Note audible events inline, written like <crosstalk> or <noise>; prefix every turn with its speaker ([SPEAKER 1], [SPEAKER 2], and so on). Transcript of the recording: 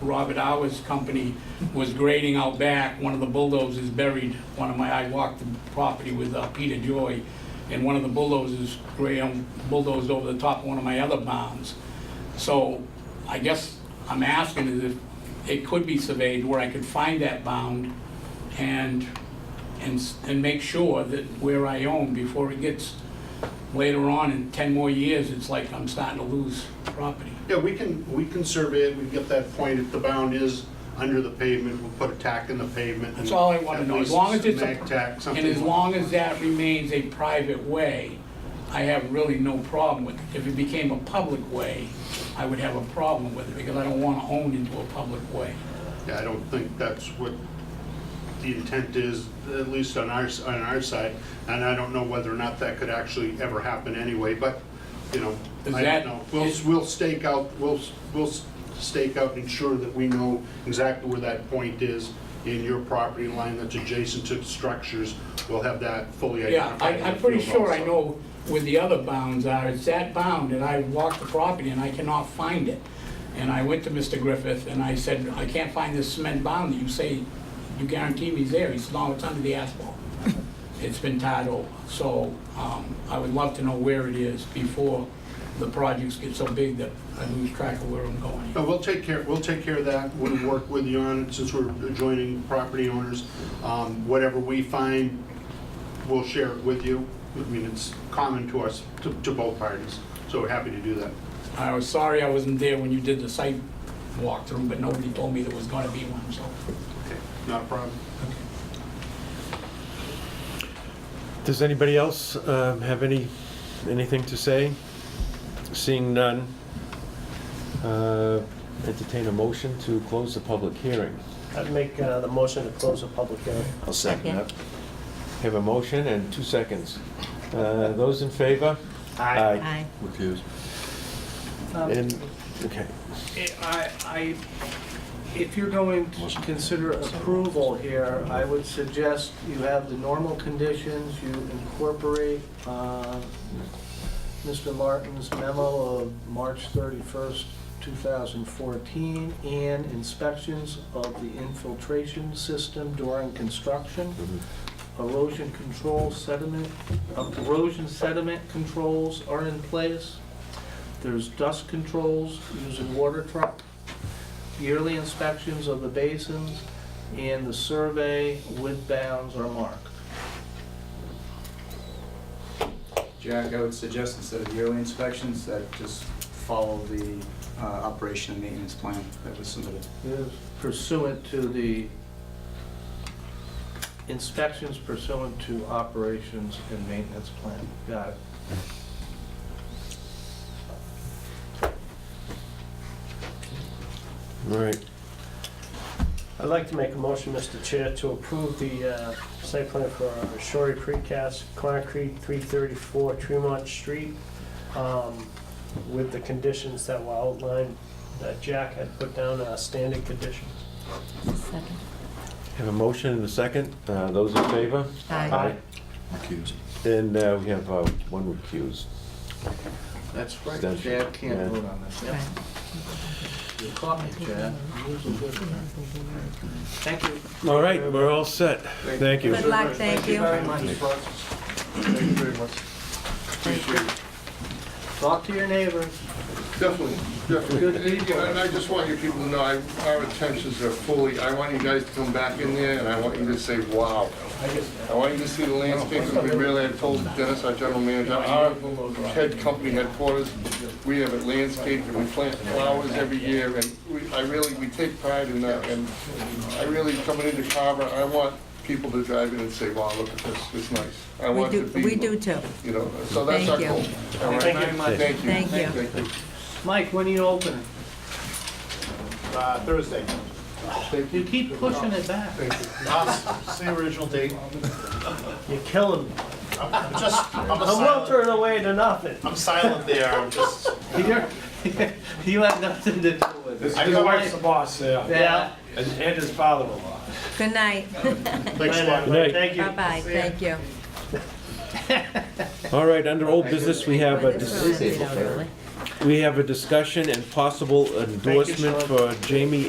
[SPEAKER 1] Robert Hours Company was grading out back, one of the bulldozers buried one of my, I walked the property with uh, Peter Joy, and one of the bulldozers, Graham bulldozed over the top of one of my other bounds. So I guess I'm asking is if it could be surveyed where I could find that bound and, and, s- and make sure that where I own before it gets later on in 10 more years, it's like I'm starting to lose property.
[SPEAKER 2] Yeah, we can, we can survey it, we can get that point, if the bound is under the pavement, we'll put a tack in the pavement. and
[SPEAKER 1] That's all I want to
[SPEAKER 2] at
[SPEAKER 1] know, as
[SPEAKER 2] least
[SPEAKER 1] long as it's,
[SPEAKER 2] mag tack,
[SPEAKER 1] a-
[SPEAKER 2] something.
[SPEAKER 1] and as long as that remains a private way, I have really no problem with it. If it became a public way, I would have a problem with it, because I don't want to own into a public way.
[SPEAKER 2] Yeah, I don't think that's what the intent is, at least on our, on our side, and I don't know whether or not that could actually ever happen anyway, but, you know,
[SPEAKER 1] Is
[SPEAKER 2] I
[SPEAKER 1] that-
[SPEAKER 2] don't know. We'll, we'll stake out, we'll, we'll stake out, and ensure that we know exactly where that point is in your property line that's adjacent to structures. We'll have that fully
[SPEAKER 1] Yeah,
[SPEAKER 2] identified.
[SPEAKER 1] I,
[SPEAKER 2] in the
[SPEAKER 1] I'm pretty
[SPEAKER 2] field
[SPEAKER 1] sure I
[SPEAKER 2] also.
[SPEAKER 1] know where the other bounds are, it's that bound, and I walked the property and I cannot find it. And I went to Mr. Griffith and I said, I can't find this cement bound that you say, you guarantee me is there, he said, no, it's under the asphalt. It's been tied over, so, um, I would love to know where it is before the projects get so big that I lose track of where I'm going.
[SPEAKER 2] No, we'll take care, we'll take care of that, we'll work with you on it, since we're adjoining property owners. Um, Whatever we find, we'll share it with you. I mean, it's common to us, to to both parties, so we're happy to do that.
[SPEAKER 1] I was sorry I wasn't there when you did the site walkthrough, but nobody told me there was gonna be one, so.
[SPEAKER 2] Okay, Not a problem.
[SPEAKER 3] Does anybody else um, have any, anything to say? Seeing none, uh, entertain a motion to close the public hearing.
[SPEAKER 4] I'd make uh, the motion to close the public hearing.
[SPEAKER 3] I'll second that. Have a motion and two seconds. Uh, Those in favor?
[SPEAKER 5] Aye.
[SPEAKER 3] Recuse.
[SPEAKER 6] Um,
[SPEAKER 3] And, okay,
[SPEAKER 6] I, I, if you're going to consider approval here, I would suggest you have the normal conditions, you incorporate uh, Mr. Martin's memo of March 31st, 2014, and inspections of the infiltration system during construction, erosion control sediment, uh, erosion sediment controls are in place. There's dust controls using water truck, yearly inspections of the basins, and the survey with bounds are marked.
[SPEAKER 7] Jack, I would suggest instead of yearly inspections, that just follow the uh, operation and maintenance plan that was submitted.
[SPEAKER 6] Pursuant to the, inspections pursuant to operations and maintenance plan. Got it.
[SPEAKER 3] all right.
[SPEAKER 4] I'd like to make a motion, Mr. Chair, to approve the uh, site plan for Shorey Precast Concrete, 334 Tremont Street, um, with the conditions that were outlined, that Jack had put down, uh, standard conditions.
[SPEAKER 5] Second.
[SPEAKER 3] Have a motion and a second. Uh, Those in favor?
[SPEAKER 5] Aye.
[SPEAKER 3] And uh, we have uh, one recused.
[SPEAKER 6] That's right.
[SPEAKER 3] Extension.
[SPEAKER 6] Chad
[SPEAKER 3] Yeah.
[SPEAKER 6] can't vote on this.
[SPEAKER 5] Right.
[SPEAKER 6] You caught me, Chad. You was a good one. Thank you.
[SPEAKER 3] All right, we're all set. Thank you.
[SPEAKER 5] Good luck, thank you.
[SPEAKER 6] very much, Francis.
[SPEAKER 2] Thank you very much.
[SPEAKER 6] Talk to your neighbors.
[SPEAKER 8] Definitely, definitely. And- And I just want you people to know, I- our intentions are fully, I want you guys to come back in there and I want you to say, wow. I want you to see the landscape that we really, I told Dennis, our general manager, our head company headquarters, we have it landscaped and we plant flowers every year and we, I really, we take pride in that. And I really, coming into Carver, I want people to drive in and say, wow, look at this, it's nice. I
[SPEAKER 5] We
[SPEAKER 8] want to
[SPEAKER 5] do,
[SPEAKER 8] be,
[SPEAKER 5] we do too.
[SPEAKER 8] you know, so that's our
[SPEAKER 5] Thank you.
[SPEAKER 8] goal. All right?
[SPEAKER 6] Thank you very much.
[SPEAKER 8] Thank you.
[SPEAKER 5] Thank you.
[SPEAKER 6] Mike, when are you opening?
[SPEAKER 9] Uh, Thursday.
[SPEAKER 6] You keep pushing it back.
[SPEAKER 9] Say original date.
[SPEAKER 4] You're killing me.
[SPEAKER 9] I'm just, <laughs> I'm a
[SPEAKER 4] I won't
[SPEAKER 9] silent,
[SPEAKER 4] turn away to nothing.
[SPEAKER 9] I'm silent there, I'm just.
[SPEAKER 6] You're- You have nothing to do with it.
[SPEAKER 9] I got-
[SPEAKER 4] boss,
[SPEAKER 6] Yeah.
[SPEAKER 4] And his father-in-law.
[SPEAKER 5] Good night.
[SPEAKER 9] Thanks a lot.
[SPEAKER 3] Good night.
[SPEAKER 4] Thank you.
[SPEAKER 5] Bye-bye, thank you.
[SPEAKER 3] All right, under old business, we have a,
[SPEAKER 5] This
[SPEAKER 3] dis-
[SPEAKER 5] one, we don't really-
[SPEAKER 3] we have a discussion and possible
[SPEAKER 6] you,
[SPEAKER 3] endorsement for Jamie